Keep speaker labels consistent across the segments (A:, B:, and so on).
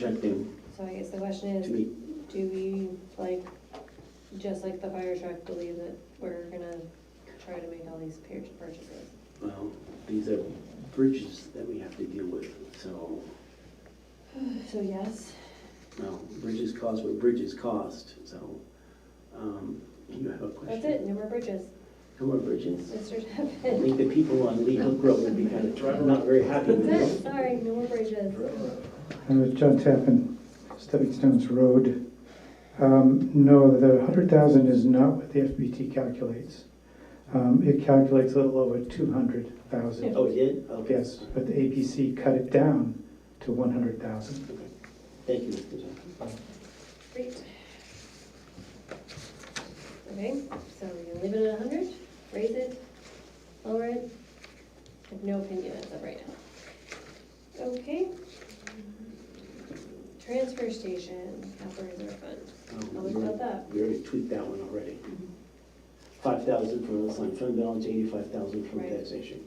A: projecting
B: So I guess the question
A: to
B: is,
A: meet.
B: do we, like, just like the fire truck, believe that we're gonna try to make all these pur- purchases?
A: Well, these are bridges that we have to deal with, so,
B: So yes,
A: well, bridges cost what bridges cost, so. um, You have a question?
B: that's it, no more bridges,
A: Come on, bridges.
B: Mr.
A: I
B: Tappan.
A: think the people on Lee Hook Road would be kind of not very happy with
B: That's
A: this.
B: it, sorry, no more bridges.
C: Uh, John Tappan, Stepping Stones Road. Um, No, the hundred thousand is not what the FBT calculates. Um, It calculates a little over two hundred thousand.
A: Oh, you did? Okay.
C: Yes, but the APC cut it down to one hundred thousand.
A: Okay. Thank you, Mr. Johnson.
B: Great. Okay, so we're gonna leave it at hundred, raise it, lower it, I have no opinion as of right now. Okay. Transfer station, capital reserve fund, how
A: Um,
B: much about Oh, that? Mm-hmm.
A: We already tweaked that one already. Five thousand from the line fund balance, eighty-five thousand from
B: Right.
A: taxation.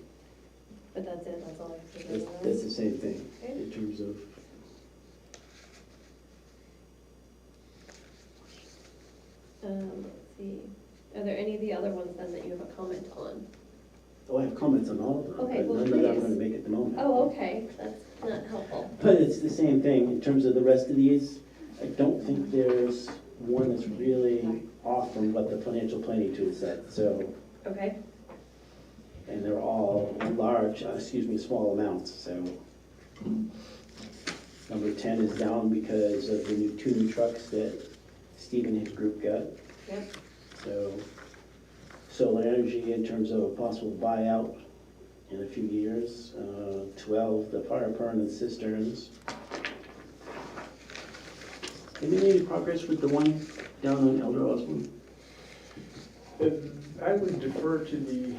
B: But that's it, that's all I have to
A: That's,
B: say on
A: that's
B: that.
A: the same thing
B: Okay,
A: in terms of.
B: um, let's see, are there any of the other ones then that you have a comment on?
A: Oh, I have comments on all of them.
B: Okay,
A: but
B: well,
A: None that I'm
B: please.
A: gonna make at the moment.
B: Oh, okay, that's not helpful.
A: But it's the same thing in terms of the rest of these. I don't think there's one that's really off from what the financial planning tool said, so.
B: Okay,
A: And they're all large, uh, excuse me, small amounts, so. Number ten is down because of the new two new trucks that Steve and his group got.
B: yep,
A: So, solar energy in terms of a possible buyout in a few years. Uh, Twelve, the fire permanent cisterns. Have you made any progress with the one down on Elder Osborne?
D: I would defer to the,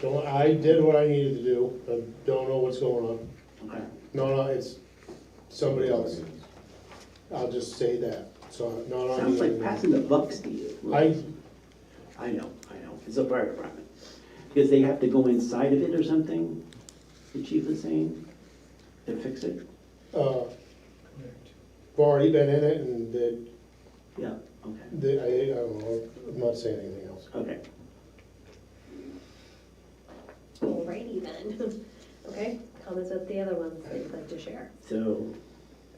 E: Don't, I did what I needed to do, I don't know what's going on.
A: Okay,
E: No, no, it's somebody else. I'll just say that, so, no, no. I
A: sounds like
E: mean-
A: passing the buck, Steve.
E: I,
A: I know, I know, it's a fire department. Because they have to go inside of it or something, the chief is saying, to fix it?
E: uh, I've already been in it and that,
A: Yeah, okay,
E: that, I, I don't know, I'm not saying anything else.
A: okay.
B: alrighty then. Okay, comments about the other ones that you'd like to share?
A: So,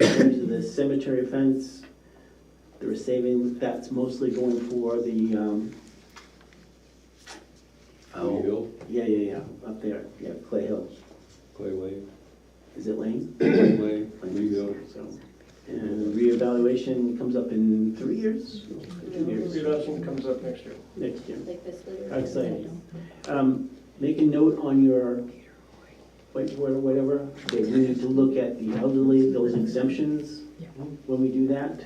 A: in terms of the cemetery fence, there were savings, that's mostly going for the, um.
F: Clay
A: oh,
F: Hill,
A: Yeah, yeah, yeah, up there, yeah, Clay Hill,
F: Clay Lane,
A: is it Lane?
F: Clay Lane, Lee Hill.
A: So, And reevaluation comes up in three years? Two years,
D: reduction comes up next year.
A: next year.
B: Like this one?
A: How exciting. Um, make a note on your whiteboard or whatever, that we need to look at the elderly, those exemptions when we do that.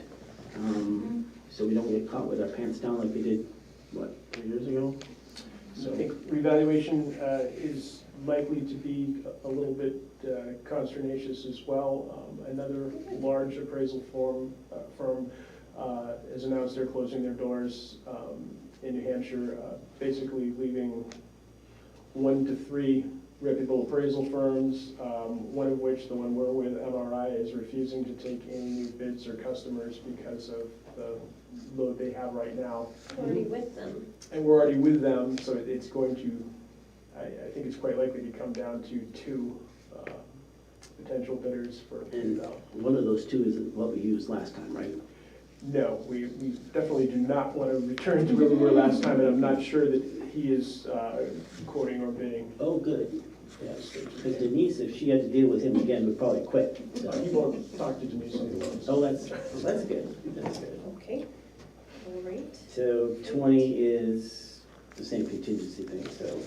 A: Um, so we don't get caught with our pants down like we did, what, three years ago?
D: I think revaluation uh, is likely to be a a little bit uh, consternatious as well. Um, Another large appraisal firm, firm uh, has announced they're closing their doors um, in New Hampshire, uh, basically leaving one to three reputable appraisal firms, um, one of which, the one we're with, MRI, is refusing to take any new bids or customers because of the load they have right now.
B: Already with them.
D: And we're already with them, so it- it's going to, I, I think it's quite likely to come down to two uh, potential bidders for
A: And
D: Bluebell.
A: one of those two is what we used last time, right?
D: No, we, we definitely do not want to return to where we were last time, and I'm not sure that he is uh, quoting or bidding.
A: Oh, good. Because Denise, if she had to deal with him again, would probably quit,
D: He
A: so.
D: won't talk to Denise anymore.
A: Oh, that's, that's good, that's good.
B: Okay, all right.
A: So twenty is the same contingency thing, so.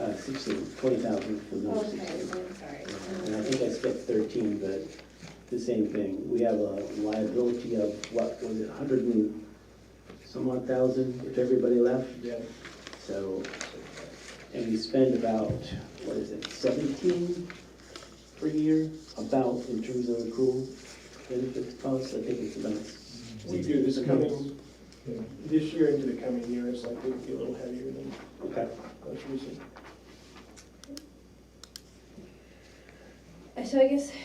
A: Uh, sixteen, twenty thousand for number
B: Okay,
A: sixteen.
B: I'm sorry.
A: And I think I skipped thirteen, but the same thing. We have a liability of, what, was it a hundred and some odd thousand if everybody left?
D: Yeah,
A: So, and we spend about, what is it, seventeen per year? About in terms of accrual benefits costs, I think it's about
D: we do this coming, this year into the coming year, it's likely to be a little heavier than
A: Okay.
D: most recent.
B: I Uh, so I guess